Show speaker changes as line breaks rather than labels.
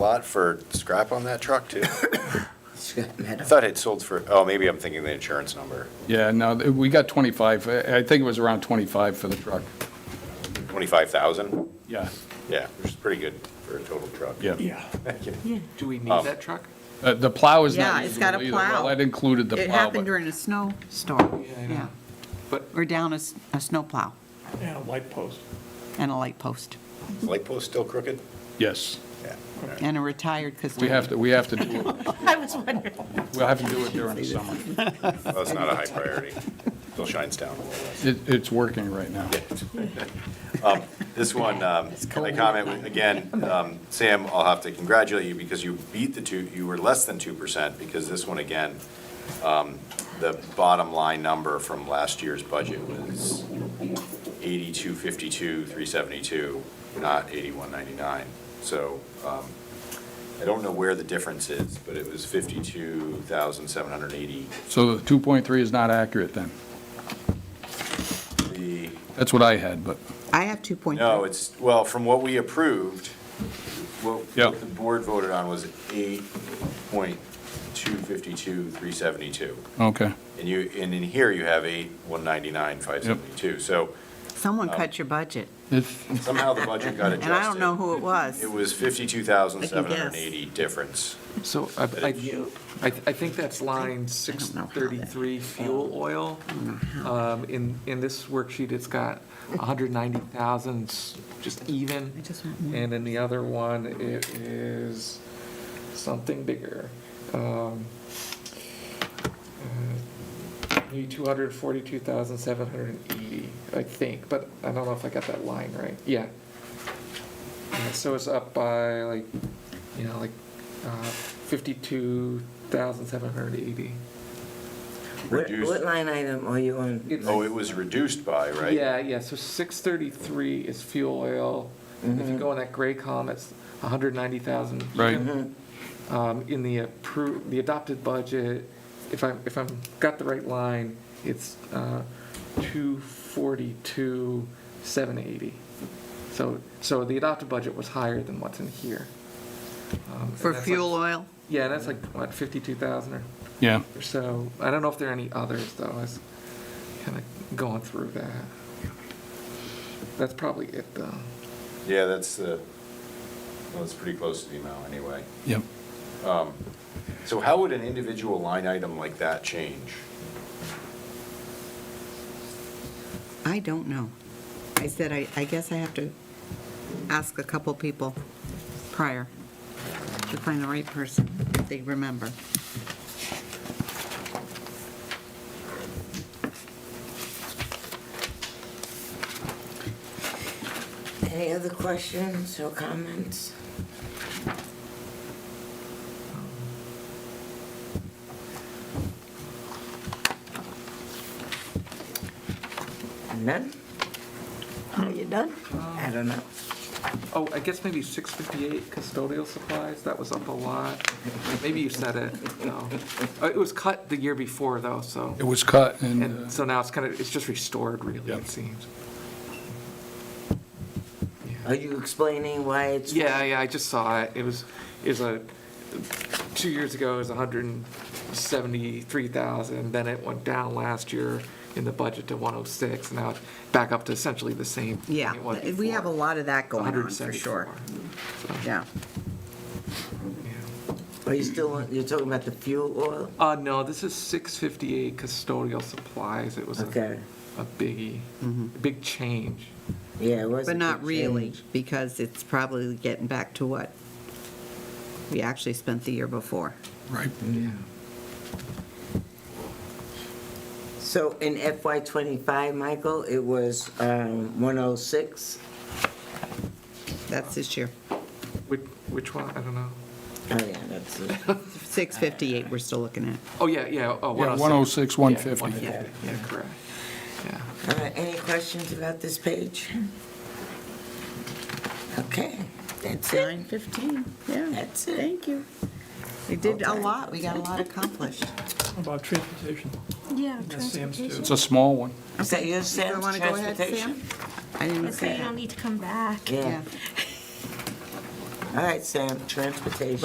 lot for scrap on that truck too?
Scott
I
Meadow.
thought it sold for, oh, maybe I'm thinking the insurance number,
Yeah, no, th- we got 25, I I think it was around 25 for the truck.
25,000?
Yeah,
Yeah, which is pretty good for a total truck.
yeah.
Do we need
Um,
that truck?
Uh, The plow is not
Yeah, it's got a
usable either. Well,
plow.
That included the
It
plow,
happened
but
during a snowstorm,
Yeah, I know.
yeah.
But-
Or down a, s- a snowplow
Yeah, light post.
and a light post
Is Light post still crooked?
yes,
Yeah.
and a retired custodian.
we have to, we have to do it,
I was wondering.
we'll have to do it during the summer.
Well, it's not a high priority. Still shines down a little less.
It, it's working right now.
Um, This one, um, I comment, with- again, um, Sam, I'll have to congratulate you because you beat the two, you were less than 2% because this one, again, um, the bottom line number from last year's budget was 8252, 372, not 8199. So um, I don't know where the difference is, but it was 52,780.
So the 2.3 is not accurate then.
The
That's what I had, but,
I have 2.3.
No, it's, well, from what we approved, what
Yeah.
what the board voted on was eight point two fifty-two, three seventy-two.
okay.
And you, and in here you have eight, one ninety-nine, five seventy-two. So
Someone cut your budget,
It's,
somehow the budget got adjusted.
and I don't know who it was.
It was fifty-two thousand, seven hundred and eighty difference.
So I, I, I I think that's line six
know how that-
thirty-three, fuel
Oh.
oil. Um, in, in this worksheet, it's got hundred ninety thousand, just even.
I just want more.
And in the other one, it is something bigger. Um, uh, Need two hundred forty-two thousand seven hundred and eighty, I think, but I don't know if I got that line right. Yeah. Yeah, So it's up by like, you know, like uh, fifty-two thousand seven hundred eighty.
What,
Reduced.
what line item are you on?
It's-
Oh, it was reduced by, right?
Yeah, yeah, so six thirty-three is fuel oil. If you go in that gray column, it's hundred ninety thousand.
Right.
Mm-hmm.
Um, in the approved, the adopted budget, if I'm, if I'm, got the right line, it's, uh, two forty-two, seven eighty. So, so the adopted budget was higher than what's in here. Um, and
For
that's like-
fuel oil,
Yeah, that's like, what, fifty-two thousand or
yeah,
or so. I don't know if there are any others though. I was kind of going through that. That's probably it though.
Yeah, that's, uh, well, it's pretty close to the amount anyway. Um,
yep.
So how would an individual line item like that change?
I don't know. I said, I, I guess I have to ask a couple people prior to find the right person, if they remember.
Any other questions or comments? None? Are you done?
Um,
I don't know.
Oh, I guess maybe six fifty-eight custodial supplies. That was up a lot. Maybe you said it. No, Uh, it was cut the year before though, so
It was cut and, uh,
and so now it's kind of it's just restored really.
Yep.
It seems.
Are you explaining why it's?
Yeah, yeah. I just saw it. It was is a two years ago it was one hundred seventy-three thousand. Then it went down last year in the budget to one hundred six. Now it's back up to essentially the same. thing
Yeah,
it was
we have a
before.
lot of that going on, for
174.
sure.
So,
Yeah.
yeah.
Are you still, on- you're talking about the fuel oil?
Uh, no, this is six fifty-eight custodial supplies. It was
Okay.
a, a biggie,
Mm-hmm.
a big change.
Yeah, it was. a
But not
big
really,
change.
because it's probably getting back to what we actually spent the year before.
right,
So in FY twenty-five, Michael, it was one oh six?
That's this year.
Which which one? I don't know.
Oh, yeah, that's it.
658 we're still looking at.
Oh yeah, yeah. Oh,
Yeah,
106.
106, 150.
Yeah, 150. yeah, correct. Yeah.
All right, any questions about this page? Okay, that's it.
915, yeah.
That's it. Thank you.
We did a lot, we got a lot accomplished.
About transportation.
Yeah,
That's Sam's too.
transportation.
it's a small one.
Is that your
I
sense,
want to go ahead, Sam?
transportation?
I didn't
That's
say
why you'll
that.
need to come back.
Yeah. All right, Sam, transportation.